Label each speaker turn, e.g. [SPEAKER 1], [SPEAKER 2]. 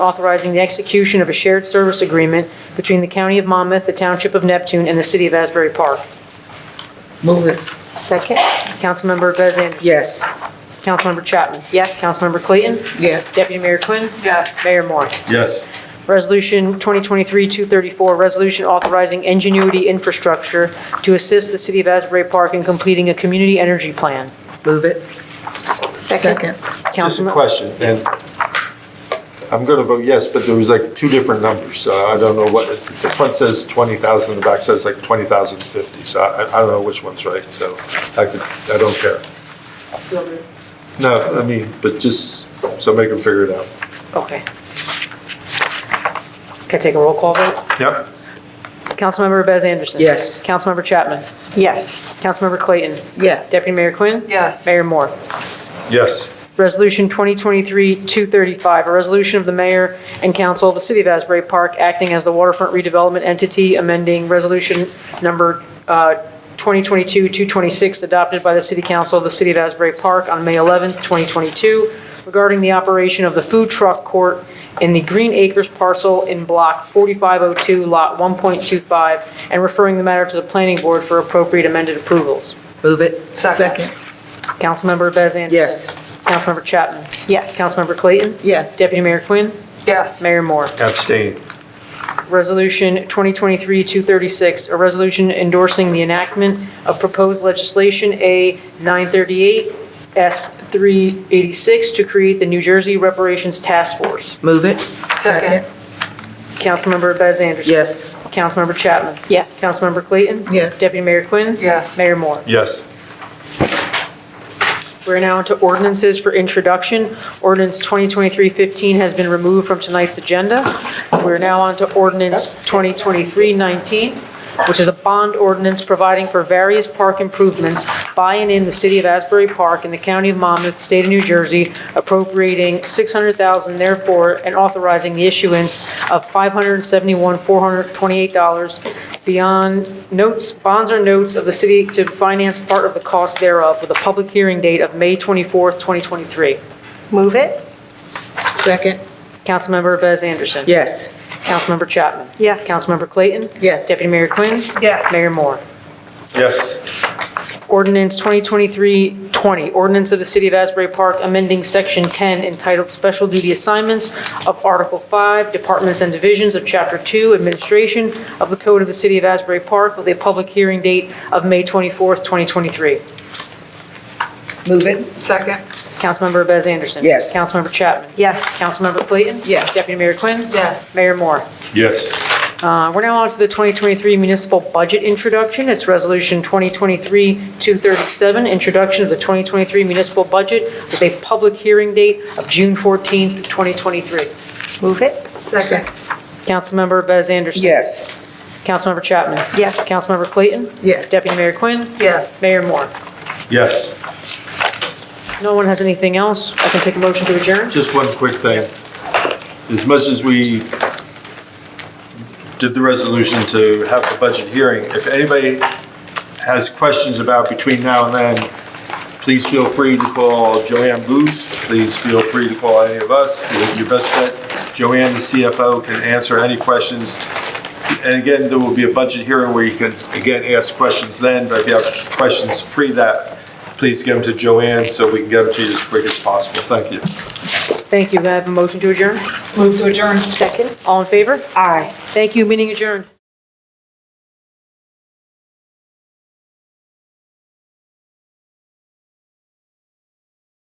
[SPEAKER 1] authorizing the execution of a shared service agreement between the County of Monmouth, the Township of Neptune, and the City of Asbury Park.
[SPEAKER 2] Move it.
[SPEAKER 3] Second?
[SPEAKER 1] Councilmember Bez Anderson.
[SPEAKER 2] Yes.
[SPEAKER 1] Councilmember Chapman.
[SPEAKER 3] Yes.
[SPEAKER 1] Councilmember Clayton.
[SPEAKER 2] Yes.
[SPEAKER 1] Deputy Mayor Quinn.
[SPEAKER 3] Yes.
[SPEAKER 1] Mayor Moore.
[SPEAKER 4] yes,
[SPEAKER 1] Resolution 2023-234, resolution authorizing ingenuity infrastructure to assist the City of Asbury Park in completing a community energy plan.
[SPEAKER 2] Move it. Second.
[SPEAKER 4] just a
[SPEAKER 1] Councilmem-
[SPEAKER 4] question, and I'm gonna vote yes, but there was like two different numbers, so I don't know what, the front says twenty thousand, the back says like twenty thousand fifty, so I, I don't know which one's right, so I could, I don't care. No, I mean, but just, so make them figure it out.
[SPEAKER 1] Okay. Can I take a roll call vote?
[SPEAKER 4] Yep,
[SPEAKER 1] Councilmember Bez Anderson.
[SPEAKER 2] Yes.
[SPEAKER 1] Councilmember Chapman.
[SPEAKER 3] Yes.
[SPEAKER 1] Councilmember Clayton.
[SPEAKER 2] Yes.
[SPEAKER 1] Deputy Mayor Quinn.
[SPEAKER 3] Yes.
[SPEAKER 1] Mayor Moore.
[SPEAKER 4] yes,
[SPEAKER 1] Resolution 2023-235, a resolution of the mayor and council of the city of Asbury Park acting as the waterfront redevelopment entity, amending resolution number uh, 2022-226 adopted by the city council of the city of Asbury Park on May 11, 2022, regarding the operation of the food truck court in the Green Acres parcel in Block 4502, Lot 1.25, and referring the matter to the planning board for appropriate amended approvals.
[SPEAKER 2] Move it.
[SPEAKER 3] Second.
[SPEAKER 1] Councilmember Bez Anderson.
[SPEAKER 2] Yes.
[SPEAKER 1] Councilmember Chapman.
[SPEAKER 3] Yes.
[SPEAKER 1] Councilmember Clayton.
[SPEAKER 2] Yes.
[SPEAKER 1] Deputy Mayor Quinn.
[SPEAKER 3] Yes.
[SPEAKER 1] Mayor Moore.
[SPEAKER 4] abstain,
[SPEAKER 1] Resolution 2023-236, a resolution endorsing the enactment of proposed legislation A 938 S 386 to create the New Jersey Reparations Task Force.
[SPEAKER 2] Move it.
[SPEAKER 3] Second.
[SPEAKER 1] Councilmember Bez Anderson.
[SPEAKER 2] Yes.
[SPEAKER 1] Councilmember Chapman.
[SPEAKER 3] Yes.
[SPEAKER 1] Councilmember Clayton.
[SPEAKER 2] Yes.
[SPEAKER 1] Deputy Mayor Quinn.
[SPEAKER 3] Yes.
[SPEAKER 1] Mayor Moore.
[SPEAKER 4] yes,
[SPEAKER 1] We're now into ordinances for introduction. Ordinance 2023-15 has been removed from tonight's agenda. We're now on to ordinance 2023-19, which is a bond ordinance providing for various park improvements by and in the city of Asbury Park in the county of Monmouth, state of New Jersey, appropriating $600,000 therefore and authorizing the issuance of $571,428 beyond notes, bonds or notes of the city to finance part of the cost thereof with a public hearing date of May 24th, 2023.
[SPEAKER 3] Move it?
[SPEAKER 2] Second.
[SPEAKER 1] Councilmember Bez Anderson.
[SPEAKER 2] Yes.
[SPEAKER 1] Councilmember Chapman.
[SPEAKER 3] Yes.
[SPEAKER 1] Councilmember Clayton.
[SPEAKER 2] Yes.
[SPEAKER 1] Deputy Mayor Quinn.
[SPEAKER 3] Yes.
[SPEAKER 1] Mayor Moore.
[SPEAKER 4] yes,
[SPEAKER 1] Ordinance 2023-20, ordinance of the City of Asbury Park amending Section 10 entitled Special Duty Assignments of Article 5, Departments and Divisions of Chapter 2, Administration of the Code of the City of Asbury Park with a public hearing date of May 24th, 2023.
[SPEAKER 2] Move it.
[SPEAKER 3] Second.
[SPEAKER 1] Councilmember Bez Anderson.
[SPEAKER 2] Yes.
[SPEAKER 1] Councilmember Chapman.
[SPEAKER 3] Yes.
[SPEAKER 1] Councilmember Clayton.
[SPEAKER 2] Yes.
[SPEAKER 1] Deputy Mayor Quinn.
[SPEAKER 3] Yes.
[SPEAKER 1] Mayor Moore.
[SPEAKER 4] yes,
[SPEAKER 1] Uh, We're now on to the 2023 municipal budget introduction. It's Resolution 2023-237, introduction of the 2023 municipal budget with a public hearing date of June 14th, 2023.
[SPEAKER 3] Move it?
[SPEAKER 2] Second.
[SPEAKER 1] Councilmember Bez Anderson.
[SPEAKER 2] Yes.
[SPEAKER 1] Councilmember Chapman.
[SPEAKER 3] Yes.
[SPEAKER 1] Councilmember Clayton.
[SPEAKER 2] Yes.
[SPEAKER 1] Deputy Mayor Quinn.
[SPEAKER 3] Yes.
[SPEAKER 1] Mayor Moore.
[SPEAKER 4] yes.
[SPEAKER 1] No one has anything else. I can take a motion to adjourn.
[SPEAKER 4] Just one quick thing. As much as we did the resolution to have the budget hearing, if anybody has questions about between now and then, please feel free to call Joanne Booth. Please feel free to call any of us. Your best bet, Joanne, the CFO, can answer any questions. And again, there will be a budget hearing where you can, again, ask questions then, but if you have questions pre that, please give them to Joanne so we can get them to you as quick as possible. Thank you.
[SPEAKER 1] Thank you. Can I have a motion to adjourn?
[SPEAKER 3] Move to adjourn. Second?
[SPEAKER 1] All in favor?
[SPEAKER 3] Aye.
[SPEAKER 1] Thank you. Meeting adjourned.